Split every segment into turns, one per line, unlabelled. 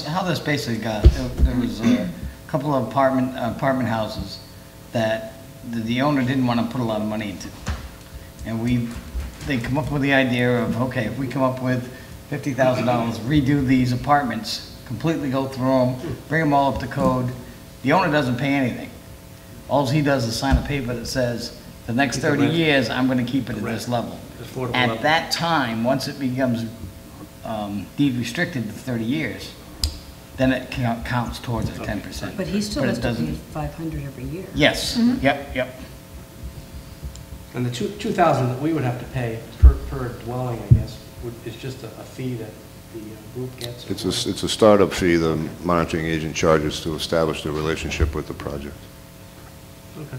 how this basically got, there- there was a couple of apartment, apartment houses that the- the owner didn't want to put a lot of money into. And we, they come up with the idea of, okay, if we come up with fifty thousand dollars, redo these apartments, completely go through them, bring them all up to code, the owner doesn't pay anything. All he does is sign a paper that says, the next
Keep the
thirty
rent.
years, I'm gonna keep it at this
Correct.
level.
Affordable
At
level.
that time, once it becomes um, deed restricted to 30 years, then it count- counts towards a 10%.
But he still
it
has to
doesn't-
pay Mm-hmm. 500 every year.
Yes, yep, yep.
And the two, two thousand that we would have to pay per, per dwelling, I guess, would, is just a, a fee that the uh, group gets. or
It's a,
whatever.
it's a startup fee the monitoring agent charges to establish the relationship with the project.
Okay.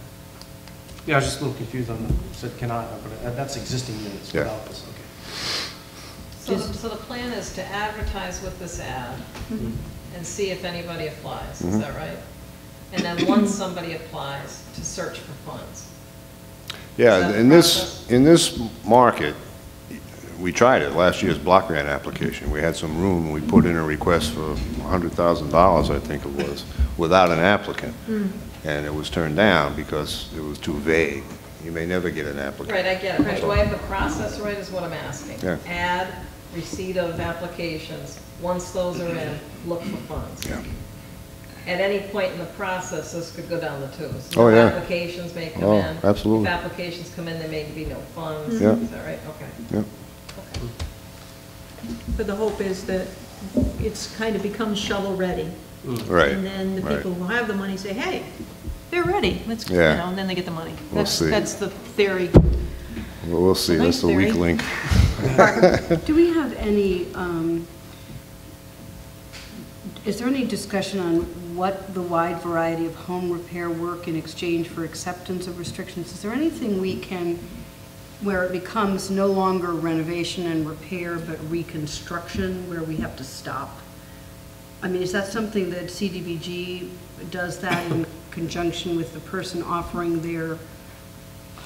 Yeah, I was just a little confused on the, said cannot, but that- that's existing units
Yeah.
without this, okay.
So, the-
Just-
so the plan is to advertise with this ad
Mm-hmm.
and see if anybody applies, is that right? And then once somebody applies, to search for funds. Is
Yeah,
that
in
the
this,
process?
in this market, we tried it, last year's block grant application, we had some room, we put in a request for $100,000, I think it was, without an applicant,
Hmm.
and it was turned down because it was too vague. You may never get an applicant.
Right, I get it, but do I have the process right, is what I'm asking?
Yeah.
Add receipt of applications, once those are in, look for funds.
Yeah.
At any point in the process, this could go down the tubes.
Oh,
No
yeah.
Applications may come
Oh,
in.
absolutely.
If applications come in, there may be no funds,
Yeah.
is that right? Okay.
Yeah.
But the hope is that it's kind of becomes shovel-ready.
Mm.
Right,
And then the
right.
people who have the money say, hey, they're ready, let's, you
Yeah.
know, and then they get the money.
We'll
That's-
see.
That's the theory.
Well, we'll see, that's the weak
Thanks, Barry.
link.
Do we have any, um, is there any discussion on what the wide variety of home repair work in exchange for acceptance of restrictions? Is there anything we can, where it becomes no longer renovation and repair, but reconstruction, where we have to stop? I mean, is that something that CDBG does that in conjunction with the person offering their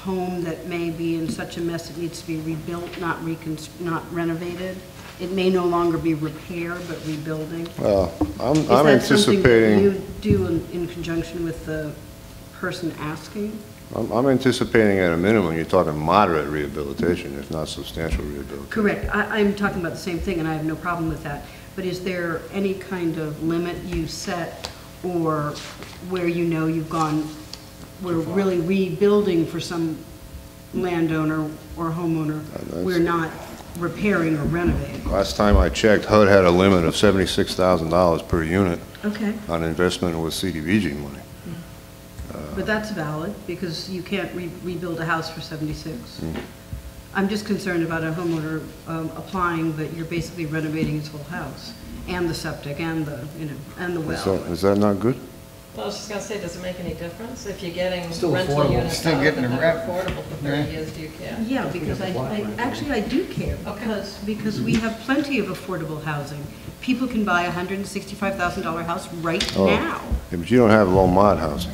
home that may be in such a mess it needs to be rebuilt, not reconst, not renovated? It may no longer be repair, but rebuilding?
Well, I'm I'm
Is that
anticipating...
something that you do in, in conjunction with the person asking?
I'm I'm anticipating at a minimum, you're talking moderate rehabilitation, if not substantial rehabilitation.
Correct, I, I'm talking about the same thing, and I have no problem with that, but is there any kind of limit you set, or where you know you've gone, we're really rebuilding for some landowner or homeowner,
that's-
we're not repairing or renovating?
Last time I checked, HUD had a limit of $76,000 per unit
Okay,
on investment with CDBG money.
but that's valid, because you can't re- rebuild a house for seventy-six. I'm just concerned about a homeowner um, applying that you're basically renovating his whole house, and the septic, and the, you know, and the
Is
well.
that, is that not good?
Well, I was just gonna say, does it make any difference if you're getting
Still
rental
affordable.
units
Still
out that
getting the
are
rent.
affordable for
Yeah.
thirty years, do you care?
Yeah,
we
because I,
have to
I,
block grant.
actually, I do care,
Okay.
because, because we have plenty of affordable housing. People can buy a hundred and sixty-five thousand dollar house right
Oh.
now.
Yeah, But you don't have low mod housing.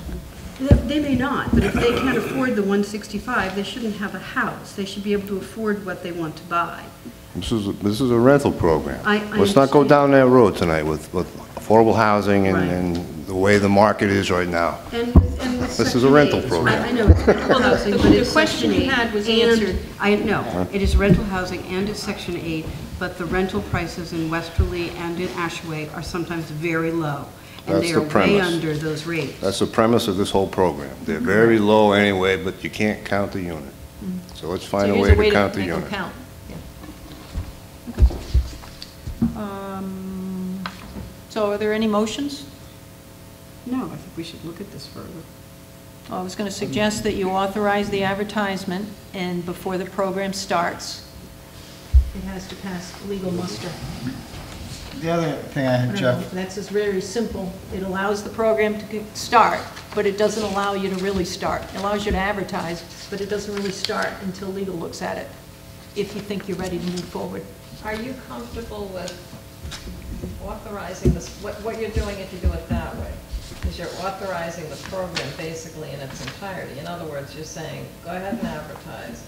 They they may not, but if they can't afford the one sixty-five, they shouldn't have a house. They should be able to afford what they want to buy.
This is, a- this is a rental program.
I- I
Let's not go
understand.
down that road tonight with, with affordable housing and,
Right.
and the way the market is right now.
And with, and with
This is a
Section
rental
eight-
program.
I, I know, it's rental
Well, the-
housing,
the-
but
the
it's
question
Section
you
eight
had was
and-
answered.
I, no, it is rental housing and it's Section 8, but the rental prices in Westerly and in Ashway are sometimes very low. And
That's
they
the
are way
premise.
under those rates.
That's the premise of this whole program. They're very low anyway, but you can't count the unit. So let's
So
find a
here's
way to count the
make them
unit.
count. Um, So are there any motions?
No, I think we should look at this further.
I was going to suggest that you authorize the advertisement, and before the program starts, it has to pass legal muster.
The other thing I
I
had,
don't know,
Jeff,
Um, That's just very simple. It allows the program to get- start, but it doesn't allow you to really start. It allows you to advertise, but it doesn't really start until legal looks at it, if you think you're ready to move forward.
Are you comfortable with authorizing this, what, what you're doing if you do it that way? Is you're authorizing the program basically in its entirety. In other words, you're saying, go ahead and advertise,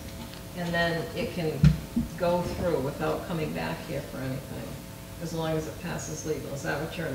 and then it can go through without coming back here for anything, as long as it passes legal. Is that what you're